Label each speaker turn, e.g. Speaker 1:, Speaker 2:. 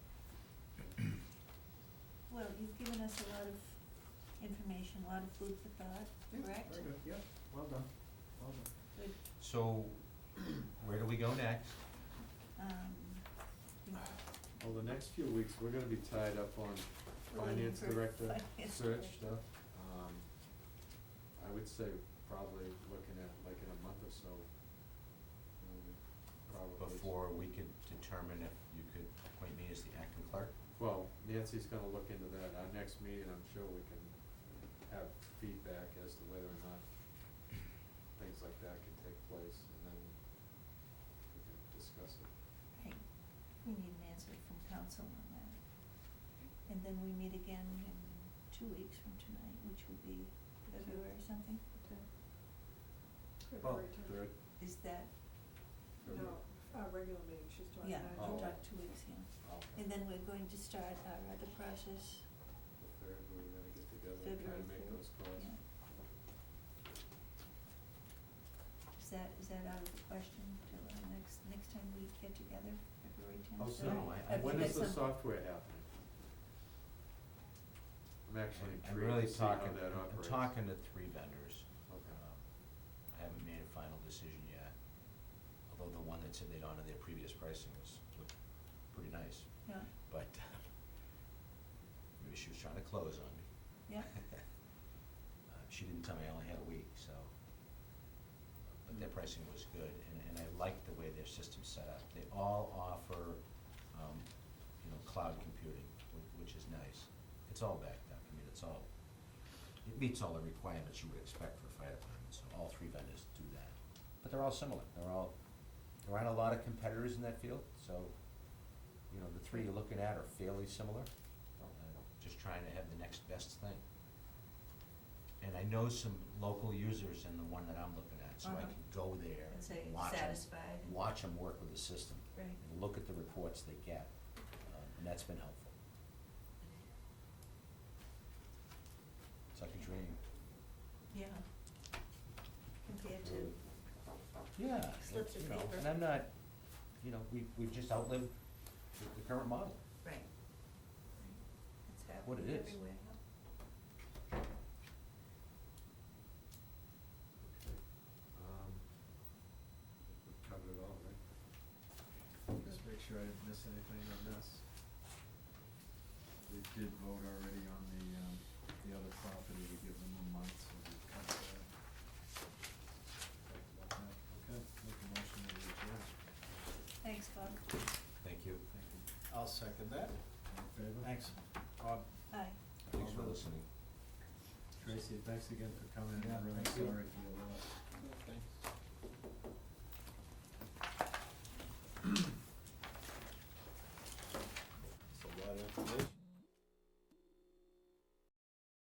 Speaker 1: you've given us a lot of information, a lot of food for thought,
Speaker 2: Yeah,
Speaker 1: correct?
Speaker 2: Very good, yeah, well done, well done.
Speaker 1: Good.
Speaker 3: So, where do we go next?
Speaker 1: Um, we-
Speaker 2: Well, the next few weeks, we're gonna be tied up on
Speaker 1: We're waiting
Speaker 2: finance
Speaker 1: for
Speaker 2: director
Speaker 1: finance
Speaker 2: search
Speaker 1: director.
Speaker 2: stuff. Um, I would say probably looking at, like in a month or so, um, probably.
Speaker 3: Before we could determine if you could appoint me as the acting clerk?
Speaker 2: Well, Nancy's gonna look into that. Our next meeting, I'm sure we can have feedback as to whether or not things like that can take place, and then we can discuss it.
Speaker 1: Right, we need an answer from council on that. And then we meet again in two weeks from tonight, which will be February or something?
Speaker 2: Oh,
Speaker 4: February tenth.
Speaker 2: Third,
Speaker 1: Is that,
Speaker 4: No, our regular meeting, she's talking
Speaker 1: yeah,
Speaker 4: about.
Speaker 1: we'll
Speaker 2: Oh.
Speaker 1: talk two weeks, yeah.
Speaker 2: oh,
Speaker 1: And then we're going to start our other process,
Speaker 2: the third, we're gonna get together and try
Speaker 1: February
Speaker 2: to make
Speaker 1: third,
Speaker 2: those calls.
Speaker 1: yeah. Is that, is that out of the question till our next, next time we get together, February tenth?
Speaker 2: Oh, sorry.
Speaker 3: so I- I-
Speaker 1: Have you
Speaker 2: When
Speaker 1: got
Speaker 2: is the
Speaker 1: some-
Speaker 2: software happening? I'm actually intrigued to see
Speaker 3: I'm-
Speaker 2: how
Speaker 3: I'm really
Speaker 2: that
Speaker 3: talking,
Speaker 2: operates.
Speaker 3: I'm talking to three vendors.
Speaker 2: Okay.
Speaker 3: Um, I haven't made a final decision yet, although the one that said they'd honor their previous pricing was, looked pretty nice.
Speaker 1: Yeah,
Speaker 3: But um, maybe she was trying to close on me.
Speaker 1: Yeah.
Speaker 3: Uh, She didn't tell me I only had a week, so, but their
Speaker 2: Mm.
Speaker 3: pricing was good, and, and I liked the way their system's set up. They all offer, um, you know, cloud computing, whi- which is nice. It's all backed up, I mean, it's all, it meets all the requirements you would expect for a fire department, so all three vendors do that. But they're all similar, they're all, there aren't a lot of competitors in that field, so, you know, the three you're looking at are fairly similar.
Speaker 1: Oh.
Speaker 3: Uh, Just trying to have the next best thing. And I know some local users in the one that I'm looking at, so I
Speaker 1: Uh-huh.
Speaker 3: can go there
Speaker 1: And say
Speaker 3: and watch 'em-
Speaker 1: satisfied.
Speaker 3: Watch them work with the system.
Speaker 1: Right.
Speaker 3: And look at the reports they get, um, and that's been helpful. It's like a dream.
Speaker 1: yeah. Compared to,
Speaker 3: Yeah. and,
Speaker 1: Slips of
Speaker 3: you know,
Speaker 1: paper.
Speaker 3: And I'm not, you know, we, we've just outlived the, the current model.
Speaker 1: right. Right. It's
Speaker 3: What it
Speaker 1: happening
Speaker 3: is.
Speaker 1: everywhere.
Speaker 2: Okay. Um, I think we've covered it all, right?
Speaker 5: Just make sure I didn't miss anything on this. We did vote already on the, um, the other property to give them a month, so we cut that. Talked about that. Okay, make a motion to adjourn.
Speaker 1: Thanks, Bob.
Speaker 3: Thank you.
Speaker 5: Thank you.
Speaker 4: I'll second that.
Speaker 5: All in favor?
Speaker 4: Thanks, Bob.
Speaker 1: Aye.
Speaker 3: Thanks for listening.
Speaker 5: Tracy, thanks again for coming, in.
Speaker 4: Yeah,
Speaker 5: I'm really
Speaker 4: thank you.
Speaker 5: sorry for your loss.
Speaker 4: It's a lot of information.